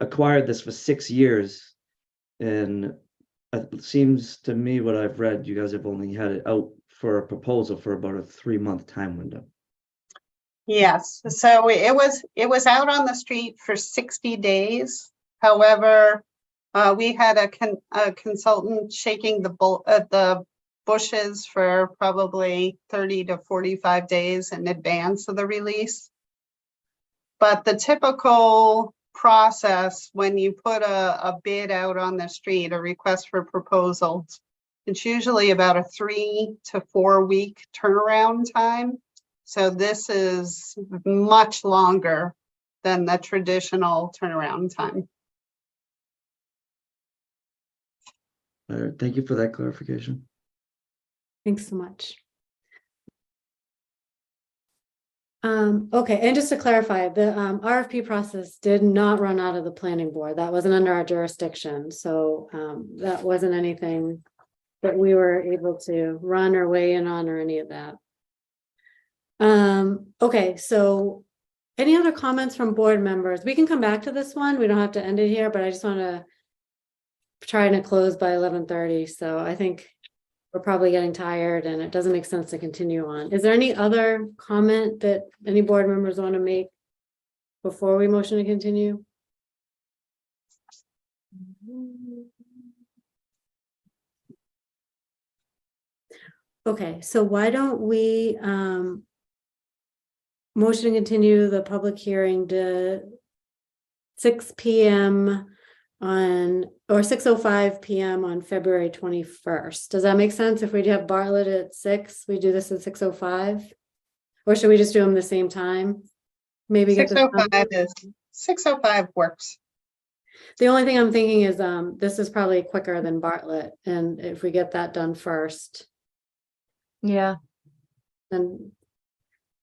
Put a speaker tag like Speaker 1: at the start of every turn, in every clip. Speaker 1: acquired this for six years. And it seems to me what I've read, you guys have only had it out for a proposal for about a three month time window.
Speaker 2: Yes, so it was, it was out on the street for sixty days. However, uh, we had a con- a consultant shaking the bull, uh, the bushes for probably thirty to forty-five days in advance of the release. But the typical process, when you put a, a bid out on the street, a request for proposals, it's usually about a three to four week turnaround time. So this is much longer than the traditional turnaround time.
Speaker 1: All right, Uh, thank you for that clarification.
Speaker 3: Thanks so much. Um, okay, and just to clarify, the um RFP process did not run out of the planning board. That wasn't under our jurisdiction, so um that wasn't anything. That we were able to run or weigh in on or any of that. Um, okay, so. Any other comments from board members? We can come back to this one. We don't have to end it here, but I just want to. Trying to close by eleven thirty, so I think we're probably getting tired and it doesn't make sense to continue on. Is there any other comment that any board members want to make before we motion to continue? Okay, so why don't we um motion to continue the public hearing to six P M on, or six oh five PM on February twenty-first. Does that make sense? If we do have Bartlett at six, we do this at six oh five? Or should we just do them the same time? Maybe. get
Speaker 2: Six oh
Speaker 3: the-
Speaker 2: five is, six oh five works.
Speaker 3: The only thing I'm thinking is, um, this is probably quicker than Bartlett, and if we get that done first,
Speaker 4: Yeah,
Speaker 3: then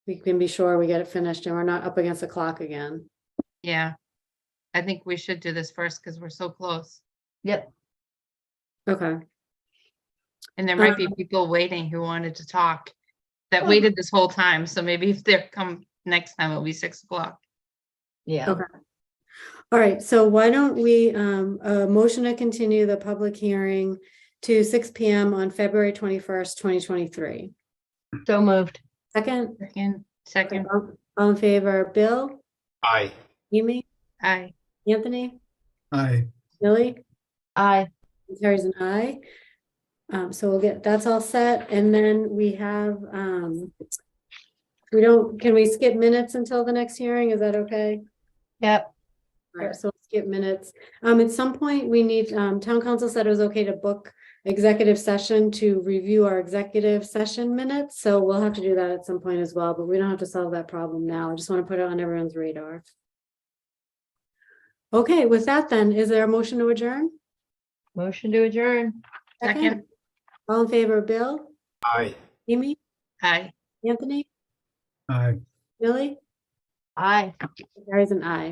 Speaker 3: we can be sure we get it finished and we're not up against the clock again.
Speaker 5: Yeah. I think we should do this first because we're so close.
Speaker 4: yep.
Speaker 3: Okay,
Speaker 5: And there might be people waiting who wanted to talk that waited this whole time. So maybe if they come next time, it'll be six o'clock.
Speaker 4: Yeah.
Speaker 3: Okay. all right, so why don't we, um, uh, motion to continue the public hearing to six P M on February twenty-first, twenty twenty-three.
Speaker 4: So moved.
Speaker 3: Second,
Speaker 5: Second, second,
Speaker 3: all all in favor, Bill,
Speaker 6: Aye.
Speaker 3: Amy,
Speaker 5: aye.
Speaker 3: Anthony,
Speaker 6: Aye.
Speaker 3: Billy?
Speaker 4: I,
Speaker 3: Carries an eye. Um, so we'll get, that's all set, and then we have, um. We don't, can we skip minutes until the next hearing, is that okay?
Speaker 4: yep.
Speaker 3: Alright, so we'll skip minutes, um, at some point, we need, um, town council said it was okay to book. Executive session to review our executive session minutes, so we'll have to do that at some point as well, but we don't have to solve that problem now, I just wanna put it on everyone's radar. Okay, with that then, is there a motion to adjourn?
Speaker 4: Motion to adjourn.
Speaker 5: Second,
Speaker 3: All in favor, Bill?
Speaker 6: Aye.
Speaker 3: Amy,
Speaker 5: aye.
Speaker 3: Anthony,
Speaker 6: Aye.
Speaker 3: Billy,
Speaker 4: Aye.
Speaker 3: there is an I.